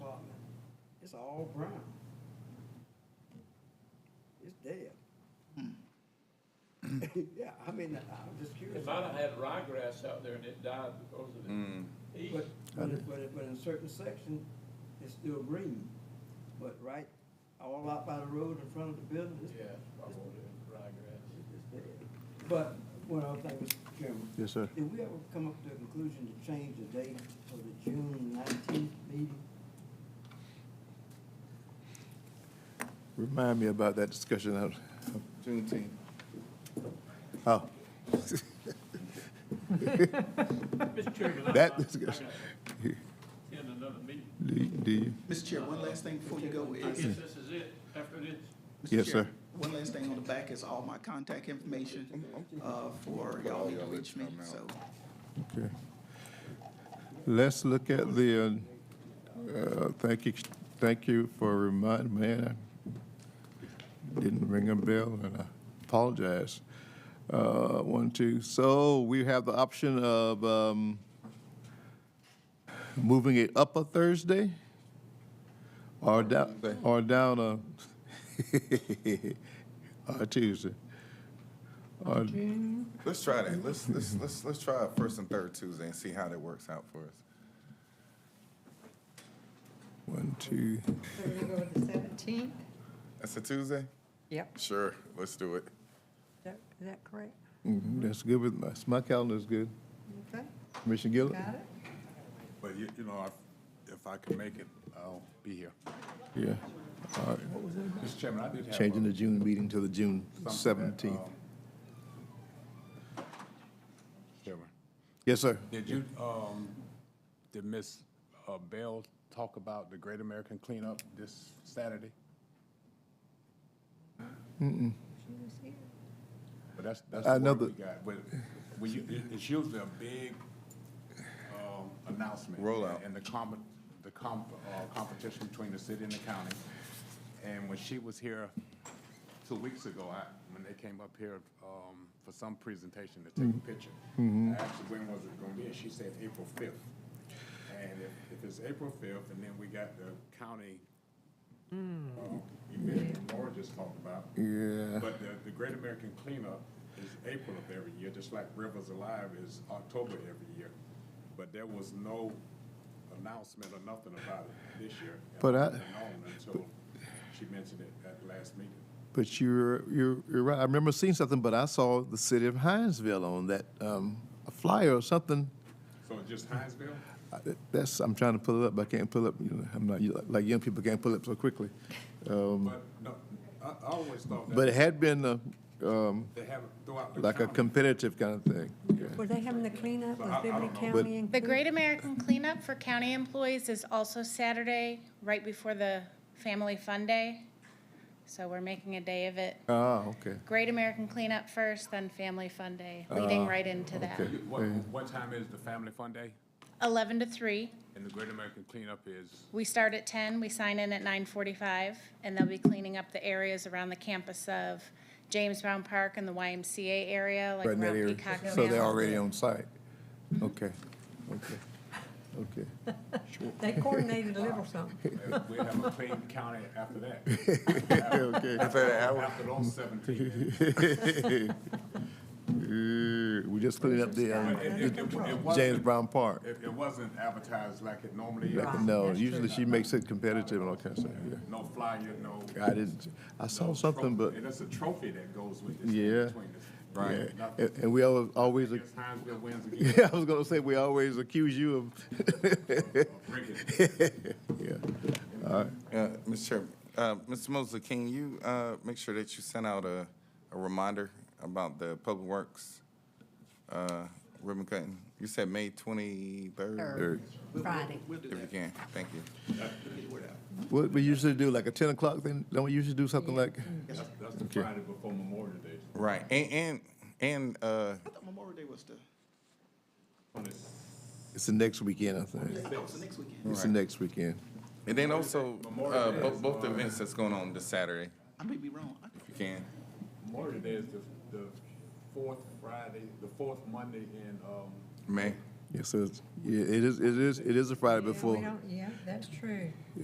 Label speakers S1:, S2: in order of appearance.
S1: It's all brown. It's dead. Yeah, I mean, I'm just
S2: They
S1: curious.
S2: might have had ryegrass out there and it died because of
S3: Mm.
S4: Mm.
S2: the heat.
S1: But, but, it- but, it- but in certain section, it's still green, but right, all out by the road in front of the building, it's,
S2: Yeah, probably ryegrass.
S1: it's dead. But, one other thing, Mr. Chairman,
S5: Yes, sir.
S1: did we ever come up to a conclusion to change the date for the June nineteenth meeting?
S5: Remind me about that discussion of of Juneteenth. Oh,
S2: Mr. Chairman, I'm
S5: That
S2: not-
S5: is good.
S2: I gotta Attend another meeting.
S5: do you- do you?
S6: Mr. Chair, one last thing before you go
S2: I
S6: is.
S2: guess this is it after this.
S6: Mr.
S5: Yes,
S6: Chair,
S5: sir.
S6: One last thing on the back is all my contact information, uh, for y'all to reach me, so.
S5: Okay. Let's look at the, uh, uh, thank you, thank you for reminding me. I Didn't ring a bell, and I apologize. Uh, One, two, so we have the option of um, moving it up a Thursday or down, or down a, or Tuesday. Or-
S3: Let's try that. Let's, let's, let's, let's try it first and third Tuesday and see how that works out for us.
S5: One, two,
S7: So we're gonna go with the seventeenth?
S3: That's a Tuesday?
S7: Yep. Is
S3: Sure, let's do it.
S7: that- is that correct?
S5: mhm, that's good with, my- my calendar's good.
S7: Okay,
S5: Commissioner Gillett?
S7: got it?
S4: But you, you know, if, if I can make it, I'll be here.
S5: Yeah. All right.
S4: Mr. Chairman, I did have.
S5: Changing
S4: uh,
S5: the June meeting to the June
S4: something that,
S5: 17th.
S4: um, Chairman,
S5: Yes, sir.
S4: did you, um, did Ms. uh, Bell talk about the Great American Cleanup this Saturday?
S7: She was here.
S4: But that's, that's the word
S5: Another-
S4: we got. But when you, it- it's usually a big, um, announcement.
S3: Rollout.
S4: And the comp, the comp, uh, competition between the city and the county. And when she was here two weeks ago, I, when they came up here, um, for some presentation to take
S5: Mm-hmm.
S4: a picture. I asked her, when was it gonna be? And she said April fifth. And if, if it's April fifth, and then we got the county, uh, event that Laura just talked about.
S5: Yeah.
S4: But the, the Great American Cleanup is April of every year, just like Rivers Alive is October every year. But there was no announcement or nothing about it this year. and
S5: But I-
S4: wouldn't have known Until she mentioned it at the last meeting.
S5: But you're, you're, you're right. I remember seeing something, but I saw the city of Hinesville on that, um, a flyer or something.
S4: So just Hinesville?
S5: I- That's, I'm trying to pull it up, but I can't pull up, you know, I'm not, you- like, young people can't pull up so quickly. Um,
S4: But no, I, I always thought
S5: But it
S4: that
S5: had been, uh, um,
S4: they have it throughout the
S5: like a
S4: county.
S5: competitive kind of thing.
S7: Were they having the cleanup?
S4: I- I
S7: Was
S4: don't
S7: Liberty
S4: know.
S7: County
S8: The
S7: included?
S8: Great American Cleanup for county employees is also Saturday, right before the Family Fun Day. So we're making a day of it.
S5: Ah, okay.
S8: Great American Cleanup first, then Family Fun Day, leading right into that.
S5: Ah, okay.
S4: What, what time is the Family Fun Day?
S8: Eleven to three.
S4: And the Great American Cleanup is,
S8: We start at ten, we sign in at nine forty-five, and they'll be cleaning up the areas around the campus of James Brown Park and the YMCA area, like
S5: Right in that
S8: around
S5: area.
S8: Peacock
S5: So they're
S8: Canal.
S5: already on site. Okay, okay, okay.
S7: They coordinated a little something.
S4: we have a clean county after that.
S5: Okay.
S3: After that hour,
S4: After those seventeen.
S5: Uh, We just cleaned up the
S4: But it-
S5: um,
S4: it- it- it
S5: James
S4: wasn't-
S5: Brown Park.
S4: It, it wasn't advertised like it normally is.
S5: Like, No, usually she makes it competitive and all kinds of stuff, yeah.
S4: No flyer, no.
S5: I didn't, I saw
S4: no
S5: something, but,
S4: trophy. And it's a trophy that goes with this.
S5: Yeah.
S4: between this-
S5: yeah.
S4: Nothing.
S5: And and we al- always,
S4: I guess Hinesville wins again.
S5: yeah, I was gonna say, we always accuse you of,
S4: Bring it.
S5: yeah.
S3: uh, Mr. Chairman, uh, Mr. Mosley, can you, uh, make sure that you send out a, a reminder about the Public Works, uh, ribbon cutting? You said May twenty-third,
S5: Eric,
S7: Friday.
S3: if you can. Thank you.
S5: What we usually do, like a ten o'clock thing, don't we usually do something like,
S4: That's that's the Friday before Memorial Day,
S3: Right, and, and, and, uh,
S6: I thought Memorial Day was the,
S5: it's the next weekend, I think.
S6: that was the next weekend.
S5: It's the next weekend.
S3: and then also, uh, both, both events that's going on this Saturday,
S6: I may be wrong. I-
S3: if you can.
S4: Memorial Day is the, the fourth Friday, the fourth Monday in, um,
S3: May.
S5: Yes, it's, yeah, it is, it is, it is a Friday
S7: Yeah, we
S5: before.
S7: don't- Yeah, that's true.